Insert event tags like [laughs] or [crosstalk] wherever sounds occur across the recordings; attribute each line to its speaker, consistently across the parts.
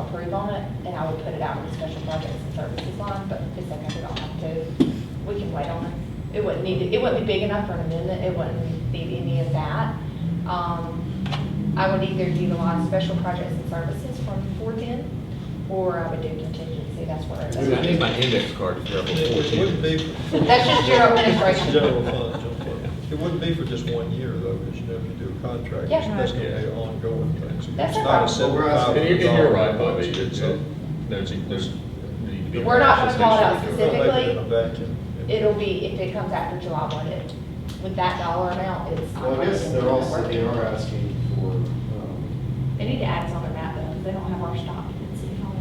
Speaker 1: approve on it, and I will put it out in the special projects and services line, but it's okay, we don't have to. We can wait on it. It wouldn't need, it wouldn't be big enough for an amendment, it wouldn't need any of that. Um, I would either utilize special projects and services from four-ten, or I would do contingency, that's where it
Speaker 2: I
Speaker 1: is.
Speaker 2: need my index card for level
Speaker 3: It wouldn't
Speaker 2: 14.
Speaker 3: be. for-
Speaker 1: That's just your administration.
Speaker 3: General fund, general fund. It wouldn't be for just one year though, because you know, if you do a contract,
Speaker 1: Yeah.
Speaker 3: it's that's gonna be an ongoing thing. So
Speaker 1: That's
Speaker 3: it's
Speaker 1: a
Speaker 3: not
Speaker 1: problem.
Speaker 3: a simple
Speaker 4: Well, we're asking-
Speaker 3: five
Speaker 4: And
Speaker 3: hundred
Speaker 4: you're-
Speaker 2: you're
Speaker 3: dollar
Speaker 2: right, Bobby.
Speaker 3: budget.
Speaker 2: It's, uh,
Speaker 3: So
Speaker 2: There's, there's, need to be.
Speaker 1: We're not gonna call it out
Speaker 3: they're making
Speaker 1: specifically.
Speaker 3: it a vacuum.
Speaker 1: It'll be, if it comes after July one, it, with that dollar amount, it's. not
Speaker 4: Well, I guess they're
Speaker 1: gonna
Speaker 4: also,
Speaker 1: work.
Speaker 4: they are asking for, um,
Speaker 1: They need to add us on their map though, because they don't have our stock in City Hall.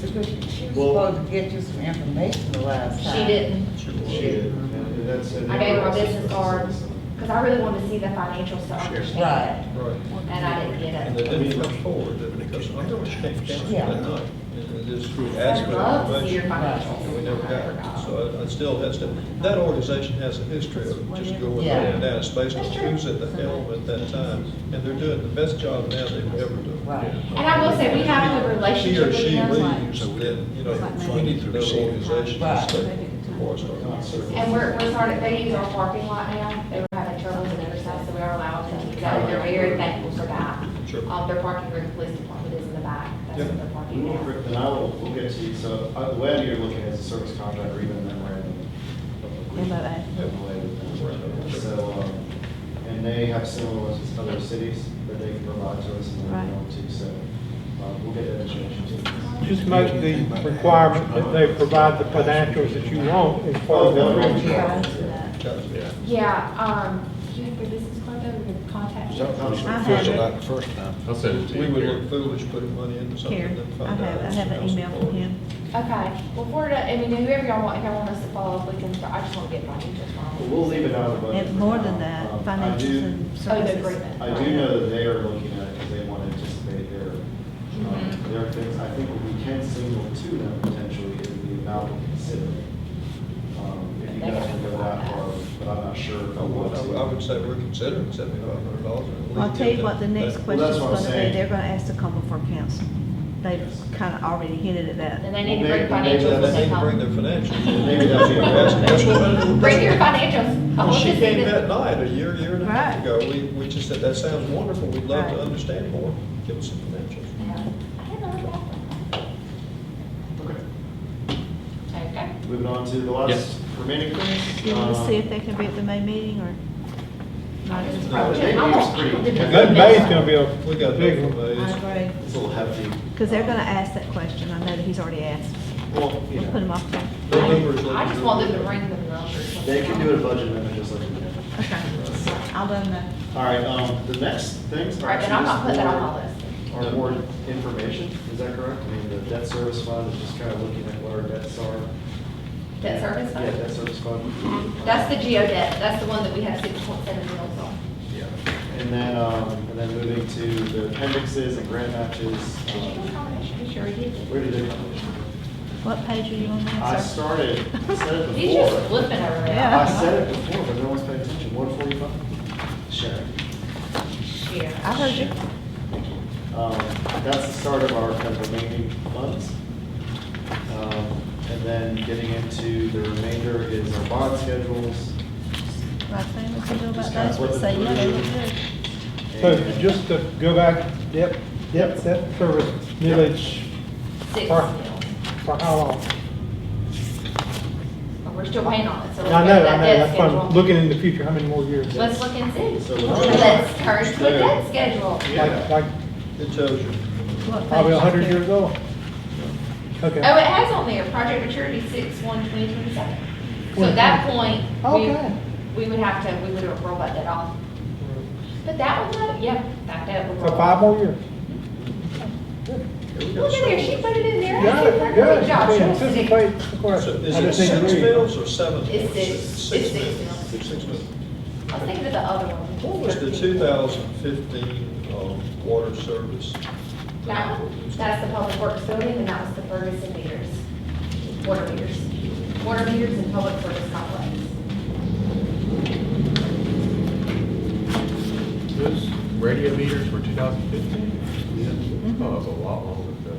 Speaker 5: Because she was
Speaker 4: Well-
Speaker 5: supposed to get you some information the last time.
Speaker 1: She didn't,
Speaker 4: she did, and that's. and
Speaker 1: I
Speaker 4: they
Speaker 1: gave her
Speaker 4: were
Speaker 1: a
Speaker 4: asking
Speaker 1: business
Speaker 4: for
Speaker 1: card,
Speaker 4: something.
Speaker 1: because I really wanted to see the financials to understand
Speaker 3: Right.
Speaker 1: it, and I didn't
Speaker 3: And
Speaker 1: get
Speaker 3: they
Speaker 1: it.
Speaker 3: didn't come forward, did it? because I know it came down
Speaker 5: Yeah.
Speaker 3: that night. And it just asked
Speaker 1: I'd
Speaker 3: for
Speaker 1: love to see your
Speaker 3: information.
Speaker 1: financials.
Speaker 3: And we never got
Speaker 1: I
Speaker 3: it.
Speaker 1: forgot.
Speaker 3: So I- I still has to, that organization has a history of just going up and down, it's based on who's at the helm at that time. And they're doing the best job now they've ever done.
Speaker 5: Right.
Speaker 1: And I will say, we have a good
Speaker 3: He or
Speaker 1: relationship with
Speaker 3: she
Speaker 1: them, like-
Speaker 3: leaves, then, you know, we need to know the organization to
Speaker 5: Right.
Speaker 3: stay before it starts.
Speaker 1: And we're, we're starting, they use our parking lot now, they were having trouble with their side, so we are allowed to keep that, in there. we're very thankful for that.
Speaker 3: Sure.
Speaker 1: Um, their parking where the police department is in the back, that's
Speaker 3: Yep.
Speaker 1: what they're parking
Speaker 4: We will,
Speaker 1: now.
Speaker 4: and I will, we'll get to you, so, uh, the way you're looking at is a service contract or even a memorandum. of agreement.
Speaker 3: Memorandum.
Speaker 4: So, um, and they have similar ones with other cities that they can provide to us and we're going to, so, um, we'll get that information to you.
Speaker 6: Just make the requirement that they provide the financials that you want as part
Speaker 4: Oh,
Speaker 6: of
Speaker 4: they'll
Speaker 6: the.
Speaker 4: reach out to that.
Speaker 3: Yeah.
Speaker 1: Yeah, um, do you have your business card though, we could contact you?
Speaker 4: Sometimes-
Speaker 7: have it.
Speaker 8: Like the first time.
Speaker 2: I'll send it to you.
Speaker 3: We would
Speaker 2: Gary.
Speaker 3: look foolish putting money into something
Speaker 7: Here,
Speaker 3: and then
Speaker 7: I
Speaker 3: find out.
Speaker 7: have, I have an email from him.
Speaker 1: Okay, well, for, the- I mean, whoever y'all want, if y'all want us to follow up, we can, I just want to get my details
Speaker 4: But
Speaker 1: wrong.
Speaker 4: We'll leave it out of the budget.
Speaker 7: And
Speaker 4: for
Speaker 7: more
Speaker 4: now.
Speaker 7: than that,
Speaker 4: Um, I
Speaker 7: financials
Speaker 4: do-
Speaker 7: and
Speaker 1: Oh, the
Speaker 7: services.
Speaker 1: agreement.
Speaker 4: I do know that they are looking at it because they want to anticipate their, um,
Speaker 7: Mm-hmm.
Speaker 4: their things. I think what we can signal to them potentially is the amount we consider. Um, If you guys can go that far, but I'm not sure if
Speaker 3: I
Speaker 4: I
Speaker 3: would,
Speaker 4: want
Speaker 3: I
Speaker 4: to.
Speaker 3: would- I would say we're considering seventy-five hundred dollars.
Speaker 7: I'll tell you what the next
Speaker 4: Well, that's
Speaker 7: question's
Speaker 4: what I'm
Speaker 7: gonna be,
Speaker 4: saying.
Speaker 7: they're gonna ask to come before council. They've kinda already hinted at that.
Speaker 1: And they need to
Speaker 4: Well,
Speaker 1: bring
Speaker 4: maybe- maybe
Speaker 1: financials when
Speaker 4: that's-
Speaker 3: They
Speaker 1: they
Speaker 3: need to bring
Speaker 1: come. [laughs]
Speaker 3: their financials.
Speaker 4: Maybe that'll be our best.
Speaker 3: That's what I-
Speaker 1: Bring your financials. [laughs] I
Speaker 3: Well,
Speaker 1: want
Speaker 3: she
Speaker 1: to see
Speaker 3: came
Speaker 1: the-
Speaker 3: that night, a year, year and a half
Speaker 7: Right.
Speaker 3: ago, we, we just said, that sounds wonderful, we'd love to
Speaker 7: Right.
Speaker 3: understand more, give us some financials.
Speaker 1: Yeah. I don't know what
Speaker 4: Okay.
Speaker 1: that- Okay.
Speaker 4: Moving on to the
Speaker 2: Yes.
Speaker 4: last remaining things.
Speaker 7: You wanna
Speaker 4: Um,
Speaker 7: see if they can be at the May meeting or not at this
Speaker 4: No,
Speaker 7: point?
Speaker 4: the May meeting's pretty.
Speaker 6: That May's gonna be
Speaker 3: We
Speaker 6: a
Speaker 3: got
Speaker 6: big
Speaker 3: big
Speaker 6: one.
Speaker 3: ones.
Speaker 7: agree.
Speaker 4: It's a little hefty.
Speaker 7: Cause they're gonna ask that question, I know that he's already asked.
Speaker 4: Um, Well, you
Speaker 7: We'll put him
Speaker 4: know,
Speaker 7: off there.
Speaker 3: The numbers look
Speaker 1: I just
Speaker 3: good.
Speaker 1: want them to bring the numbers.
Speaker 4: they can do it a budget amendment just like we did.
Speaker 7: Okay, I'll let him know.
Speaker 4: All right, um, the next things are.
Speaker 1: Right, but I'm not
Speaker 4: actually
Speaker 1: putting that
Speaker 4: just
Speaker 1: on
Speaker 4: more-
Speaker 1: my list.
Speaker 4: Or more information, is that correct? I mean, the debt service fund is just kind of looking at what our debts are.
Speaker 1: Debt service
Speaker 4: Yeah,
Speaker 1: fund? Mm-hmm.
Speaker 4: debt service fund.
Speaker 1: That's the geo debt, that's the one that we have six point seven mils on.
Speaker 4: Yeah. And then, um, and then moving to the appendixes and grant matches.
Speaker 1: Did you do
Speaker 4: um,
Speaker 1: combination? You sure did.
Speaker 4: Where did they come
Speaker 7: What page are you on
Speaker 4: from?
Speaker 7: now,
Speaker 4: I
Speaker 7: sir?
Speaker 4: started, I said
Speaker 1: [laughs]
Speaker 4: it
Speaker 1: He's just
Speaker 4: before.
Speaker 1: flipping over there.
Speaker 7: Yeah.
Speaker 4: I said it before, but no one's paying attention. One forty-five. Sharon.
Speaker 7: I
Speaker 1: Yeah.
Speaker 7: heard you.
Speaker 4: Um, That's the start of our kind of remaining funds. Um, And then getting into the remainder is our bond schedules.
Speaker 7: Roxanne, what you do
Speaker 4: Just
Speaker 7: about
Speaker 4: kinda
Speaker 7: those? But
Speaker 4: flipping
Speaker 7: say, yeah, they look
Speaker 4: through.
Speaker 7: good.
Speaker 6: So
Speaker 4: and-
Speaker 6: just to go back, yep, yep, that service village,
Speaker 1: Six
Speaker 6: Or-
Speaker 1: mils.
Speaker 6: for how long?
Speaker 1: And we're still waiting on it, so.
Speaker 6: I
Speaker 1: we'll
Speaker 6: know, I
Speaker 1: get
Speaker 6: know,
Speaker 1: that debt
Speaker 6: that's why I'm
Speaker 1: schedule.
Speaker 6: looking in the future, how many more years?
Speaker 1: Let's look and see.
Speaker 4: So we're not-
Speaker 1: Let's turn to a debt schedule.
Speaker 6: Like, like,
Speaker 3: It tells you.
Speaker 7: What
Speaker 6: probably a
Speaker 7: page
Speaker 6: hundred
Speaker 7: is it?
Speaker 6: years old?
Speaker 1: Oh,
Speaker 6: Okay.
Speaker 1: it has on there, project maturity six, one, twenty twenty-seven. So at that point, we,
Speaker 6: Okay.
Speaker 1: we would have to, we would roll that debt off. But that one, uh, though, yeah, that debt would
Speaker 6: So
Speaker 1: roll.
Speaker 6: five more years.
Speaker 3: Here we go.
Speaker 1: Look at there, she put it in there. I
Speaker 6: Got
Speaker 1: did
Speaker 6: it,
Speaker 1: a
Speaker 6: good.
Speaker 1: Good job.
Speaker 6: We
Speaker 1: She was sick.
Speaker 6: Anticipate the
Speaker 3: So
Speaker 6: question.
Speaker 3: Is
Speaker 6: I
Speaker 3: it
Speaker 6: just need to
Speaker 3: six
Speaker 6: read.
Speaker 3: mills or seven?
Speaker 1: It's
Speaker 3: mills?
Speaker 1: six. It's six mills.
Speaker 3: Six mills.
Speaker 1: I was thinking of the other one.
Speaker 3: What was the two thousand fifteen, um, water service?
Speaker 1: That one, that's the public works building, and that was the Ferguson meters, water meters. Water meters and public service complex.
Speaker 2: Those radio meters were 2015? Yeah. Oh, that was a lot longer.